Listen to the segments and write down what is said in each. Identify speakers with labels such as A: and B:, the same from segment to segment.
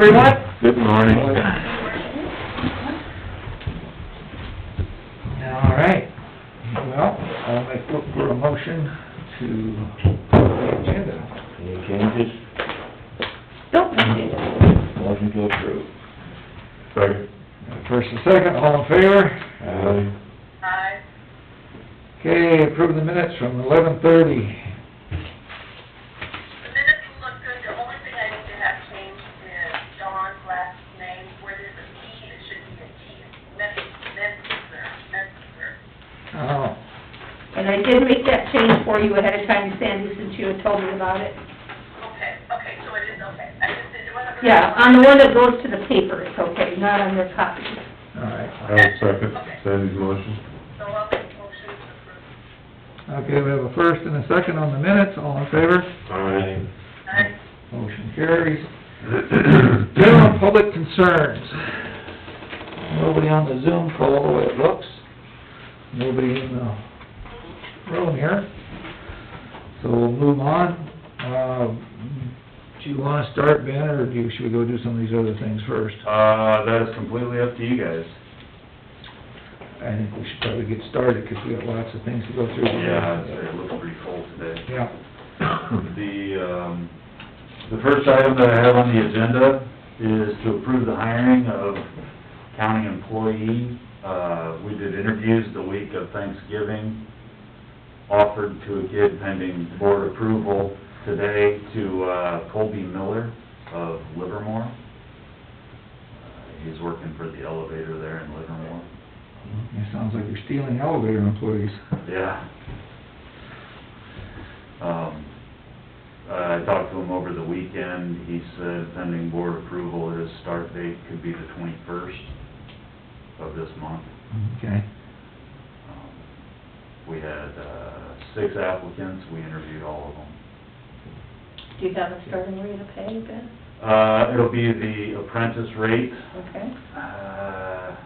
A: Good morning.
B: All right, well, I'll make, look for a motion to the agenda.
A: Any changes?
C: Don't mind it.
A: Motion to approve. Second.
B: First and second, all in favor?
A: Aye.
D: Aye.
B: Okay, approve the minutes from eleven thirty.
D: The minutes look good, the only thing I need to have changed is Dawn's last name, where there's a T, it should be a T. Metzger, Metzger.
B: Oh,
C: And I did make that change for you ahead of time, Sandy, since you had told me about it.
D: Okay, okay, so it is okay. I just, it wasn't. really-
C: Yeah, on the one that goes to the paper, it's okay, not on your copy.
B: all right.
A: I'll second Sandy's motion.
D: So I'll make motion to approve.
B: Okay, we have a first and a second on the minutes, all in favor?
A: Aye.
D: Aye.
B: Motion carries. General public concerns. Nobody on the Zoom call, the way it looks. Nobody in the room here. So we'll move on. Uh, Do you wanna start, Ben, or do you, should we go do some of these other things first?
E: Uh, that is completely up to you guys.
B: I think we should probably get started, 'cause we got lots of things to go through.
E: Yeah, it's- it looks pretty full today.
B: Yeah.
E: The, um, the first item that I have on the agenda is to approve the hiring of county employee. Uh, we did interviews the week of Thanksgiving, offered to a kid pending board approval today to, uh, Colby Miller of Livermore. Uh, He's working for the elevator there in Livermore.
B: It sounds like you're stealing elevator employees.
E: Yeah. Um, I talked to him over the weekend, he said pending board approval, his start date could be the twenty-first of this month.
B: Okay.
E: Um, We had, uh, six applicants, we interviewed all of them.
C: Do you have a starting rate of pay, Ben?
E: Uh, it'll be the apprentice rate,
C: Okay,
E: uh,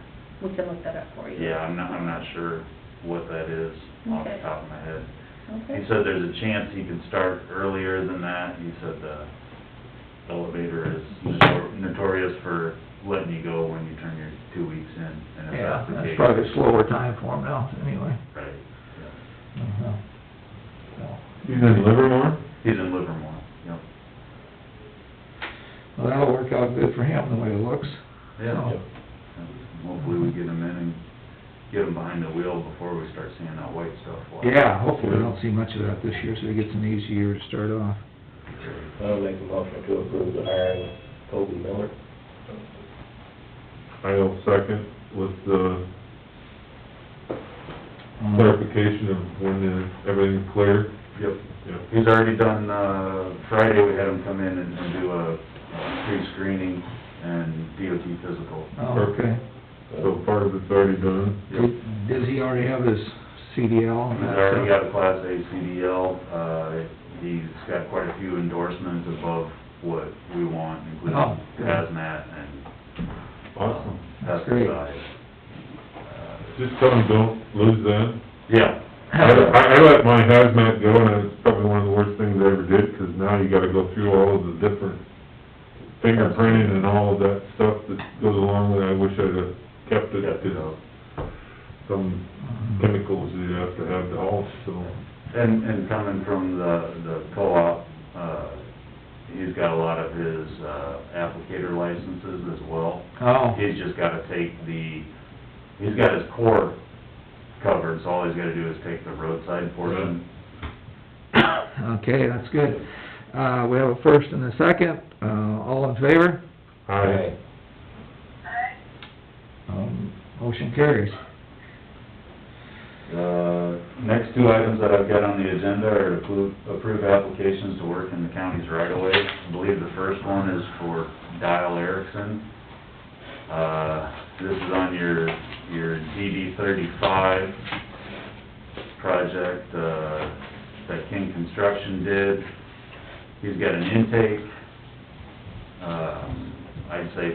C: we can look that up for you.
E: yeah, I'm not, I'm not sure what that is off the
C: Okay.
E: top of my head. He
C: Okay,
E: said there's a chance he could start earlier than that. He said the elevator is notor- notorious for letting you go when you turn your two weeks in. and if
B: Yeah,
E: the
B: that's
E: case-
B: probably a slower time for them now, anyway.
E: Right.
B: Uh-huh. So,
A: He's in Livermore?
E: He's in Livermore, yep.
B: Well, that'll work out good for him, the way it looks.
E: Yeah.
B: So,
E: Hopefully we get him in and get him behind the wheel before we start seeing that white stuff. fly.
B: Yeah, hopefully we don't see much of that this year, so he gets an easy year to start off.
F: I'll make a motion to approve the hiring of Colby Miller.
A: I'll second with the clarification of when everything's clear.
E: Yep.
A: Yeah.
E: He's already done, uh, Friday, we had him come in and and do a pre-screening and DOT physical.
B: Oh, okay.
A: So part of it's already done.
E: Yep.
B: Does he already have his CDL and
E: He's
B: that stuff?
E: already got a Class A CDL, uh, he's got quite a few endorsements above what we want, including
B: Oh, good.
E: hazmat and
A: Awesome.
B: That's great.
E: pesticides. Uh,
A: Just tell him don't lose that.
E: Yeah.
A: I, I let my hazmat go, and it's probably one of the worst things I ever did, 'cause now you gotta go through all of the different fingerprinting and all of that stuff that goes along with it. I wish I'd have kept it,
E: Kept it up.
A: 'cause some chemicals you have to have to all, so.
E: And, and coming from the, the co-op, uh, he's got a lot of his, uh, applicator licenses as well.
B: Oh,
E: He's just gotta take the, he's got his core covered, so all he's gotta do is take the roadside portion.
B: okay, that's good. Uh, we have a first and a second, uh, all in favor?
A: Aye.
D: Aye.
B: Um, motion carries.
E: The Uh, next two items that I've got on the agenda are to approve- approve applications to work in the county's right of way. I believe the first one is for Dial Erickson. Uh, this is on your, your DD thirty-five project, uh, that King Construction did. He's got an intake, um, I'd say